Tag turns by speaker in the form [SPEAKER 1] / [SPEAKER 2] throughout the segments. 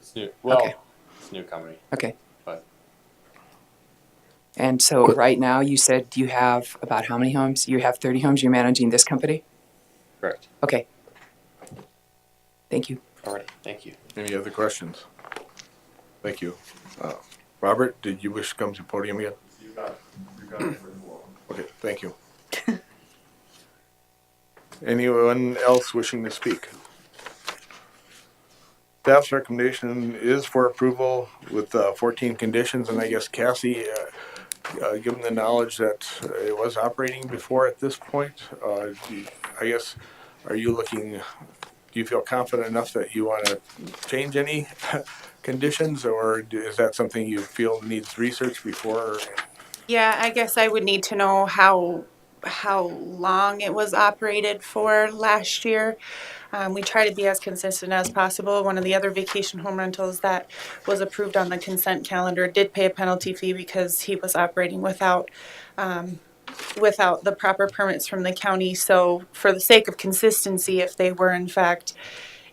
[SPEAKER 1] It's new. Well,
[SPEAKER 2] Okay.
[SPEAKER 1] it's a new company.
[SPEAKER 2] Okay.
[SPEAKER 1] But-
[SPEAKER 2] And so right now, you said you have about how many homes? You have 30 homes. You're managing this company?
[SPEAKER 1] Correct.
[SPEAKER 2] Okay. Thank you.
[SPEAKER 1] All right. Thank you.
[SPEAKER 3] Any other questions? Thank you. Uh, Robert, did you wish to come to the podium yet? You got, you got Okay, thank you. Anyone else wishing to speak? Staff's recommendation is for approval with uh, fourteen conditions, and I guess Cassie, uh, uh, given the knowledge that it was operating before at this point, uh, do you- I guess, are you looking, do you feel confident enough that you want to change any conditions, or do- is that something you feel needs research before?
[SPEAKER 4] Yeah, I guess I would need to know how, how long it was operated for last year. Um, we try to be as consistent as possible. One of the other vacation home rentals that was approved on the consent calendar did pay a penalty fee because he was operating without, um, without the proper permits from the county. So for the sake of consistency, if they were in fact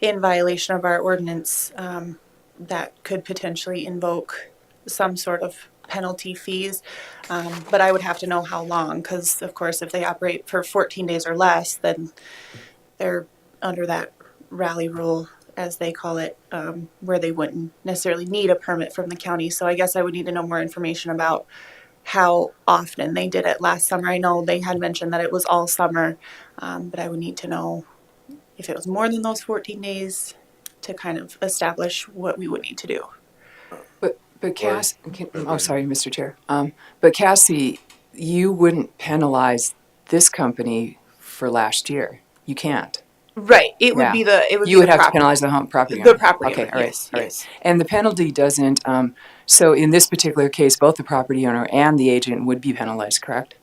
[SPEAKER 4] in violation of our ordinance, um, that could potentially invoke some sort of penalty fees. Um, but I would have to know how long, because of course, if they operate for 14 days or less, then they're under that rally rule, as they call it, um, where they wouldn't necessarily need a permit from the county. So I guess I would need to know more information about how often they did it last summer. I know they had mentioned that it was all summer, um, but I would need to know if it was more than those 14 days to kind of establish what we would need to do.
[SPEAKER 2] But, but Cass, can, oh, sorry, Mr. Chair. Um, but Cassie, you wouldn't penalize this company for last year. You can't.
[SPEAKER 4] Right. It
[SPEAKER 2] would
[SPEAKER 4] would
[SPEAKER 2] Yeah.
[SPEAKER 4] be
[SPEAKER 2] be
[SPEAKER 4] the it would
[SPEAKER 2] You would have to penalize the home property.
[SPEAKER 4] The
[SPEAKER 2] owner.
[SPEAKER 4] property
[SPEAKER 2] Okay,
[SPEAKER 4] owner,
[SPEAKER 2] all right,
[SPEAKER 4] yes,
[SPEAKER 2] all right.
[SPEAKER 4] yes.
[SPEAKER 2] And the penalty doesn't, um, so in this particular case, both the property owner and the agent would be penalized, correct?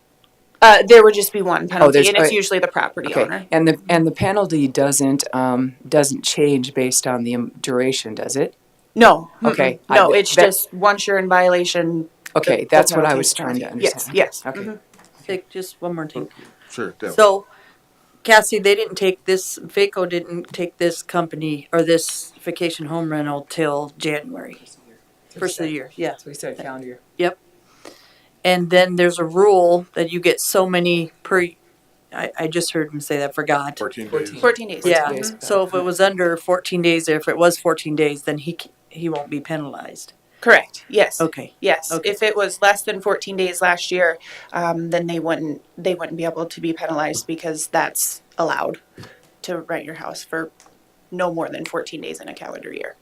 [SPEAKER 4] Uh, there would just be one penalty,
[SPEAKER 2] there's-
[SPEAKER 4] and it's
[SPEAKER 2] uh,
[SPEAKER 4] usually the property
[SPEAKER 2] Okay,
[SPEAKER 4] owner.
[SPEAKER 2] and the, and the penalty doesn't, um, doesn't change based on the um, duration, does it?
[SPEAKER 4] No.
[SPEAKER 2] Okay,
[SPEAKER 4] mm-mm. No,
[SPEAKER 2] I-
[SPEAKER 4] it's
[SPEAKER 2] that-
[SPEAKER 4] just once you're in violation.
[SPEAKER 2] Okay,
[SPEAKER 4] the- the
[SPEAKER 2] that's what I
[SPEAKER 4] penalty
[SPEAKER 2] was
[SPEAKER 4] is
[SPEAKER 2] trying to
[SPEAKER 4] penalty.
[SPEAKER 2] understand.
[SPEAKER 4] Yes, yes.
[SPEAKER 2] Okay,
[SPEAKER 4] mhm.
[SPEAKER 5] Vic, just one more thing.
[SPEAKER 3] Sure. Deb.
[SPEAKER 5] So, Cassie, they didn't take this, Vaco didn't take this company or this vacation home rental till January, first of the year, yeah.
[SPEAKER 2] we said calendar year.
[SPEAKER 5] Yep. And then there's a rule that you get so many per, I, I just heard him say that, forgot.
[SPEAKER 3] Fourteen
[SPEAKER 2] Fourteen.
[SPEAKER 3] days.
[SPEAKER 4] 14 days.
[SPEAKER 5] Yeah,
[SPEAKER 2] days.
[SPEAKER 5] mhm. so if it was under fourteen days, if it was fourteen days, then he, c- he won't be penalized.
[SPEAKER 4] Mm-hmm. Correct. Yes.
[SPEAKER 5] Okay,
[SPEAKER 4] Yes.
[SPEAKER 5] Okay.
[SPEAKER 4] If it was less than 14 days last year, um, then they wouldn't they wouldn't be able to be penalized because that's allowed to rent your house for no more than 14 days in a calendar year.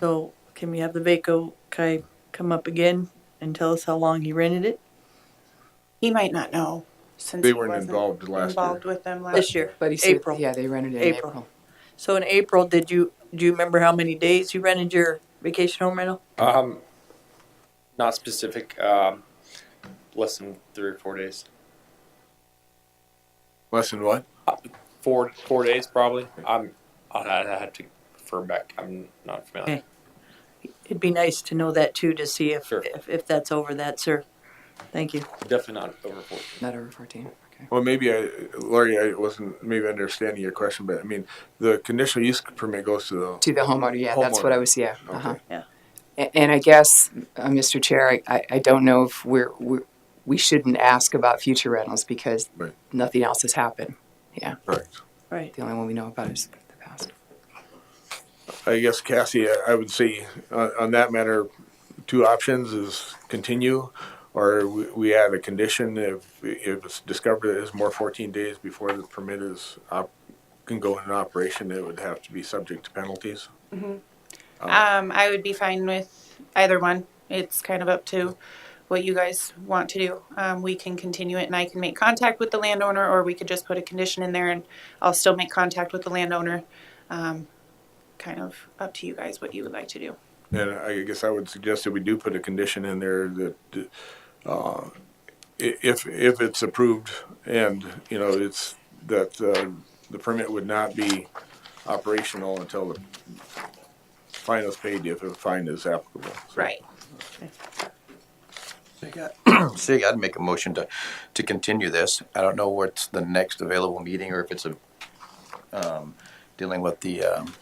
[SPEAKER 5] so can we have the Vaco guy come up again and tell us how long he rented it?
[SPEAKER 4] He might not know since
[SPEAKER 3] They
[SPEAKER 4] he
[SPEAKER 3] weren't
[SPEAKER 4] wasn't
[SPEAKER 3] involved last year.
[SPEAKER 4] involved with them last
[SPEAKER 5] This year,
[SPEAKER 2] But he said,
[SPEAKER 5] April.
[SPEAKER 2] yeah, they rented it in
[SPEAKER 5] April.
[SPEAKER 2] April.
[SPEAKER 5] So in April, did you, do you remember how many days you rented your vacation home rental?
[SPEAKER 1] Um, not specific. Um, less than three or four days.
[SPEAKER 3] Less than what?
[SPEAKER 1] Four four days probably. I'm. I'll I'd have to refer back. I'm not familiar.
[SPEAKER 5] Okay. It'd be nice to know that too, to see if,
[SPEAKER 1] Sure.
[SPEAKER 5] if, if that's over that, sir. Thank you.
[SPEAKER 1] Definitely not over fourteen.
[SPEAKER 2] Not over fourteen, okay.
[SPEAKER 3] Well, maybe I, Lori, I wasn't maybe understanding your question, but I mean, the conditional use permit goes to the,
[SPEAKER 2] To the homeowner, yeah, that's what I
[SPEAKER 3] Homeowner.
[SPEAKER 2] was, yeah, uh-huh.
[SPEAKER 5] Yeah.
[SPEAKER 2] A- And I guess, uh, Mr. Chair, I- I, I don't know if we're, we're, we shouldn't ask about future rentals because
[SPEAKER 3] Right.
[SPEAKER 2] nothing else has happened. Yeah,
[SPEAKER 3] correct.
[SPEAKER 5] Right.
[SPEAKER 2] the only one we know about is the past.
[SPEAKER 3] I guess Cassie, I I would say on, on that matter, two options is continue, or we, we add a condition if, if it's discovered it is more fourteen days before the permit is op, can go into operation, it would have to be subject to penalties.
[SPEAKER 4] Um, I would be fine with either one. It's kind of up to what you guys want to do. Um, we can continue it and I can make contact with the landowner, or we could just put a condition in there and I'll still make contact with the landowner. Um, kind of up to you guys what you would like to do.
[SPEAKER 3] And I guess I would suggest that we do put a condition in there that, uh, i- if, if it's approved and, you know, it's, that, uh, the permit would not be operational until the fine is paid, if a fine is applicable. So-
[SPEAKER 4] Right.
[SPEAKER 6] So you got, so you gotta make a motion to, to continue this. I don't know what's the next available meeting or if it's a, um, dealing with the, um,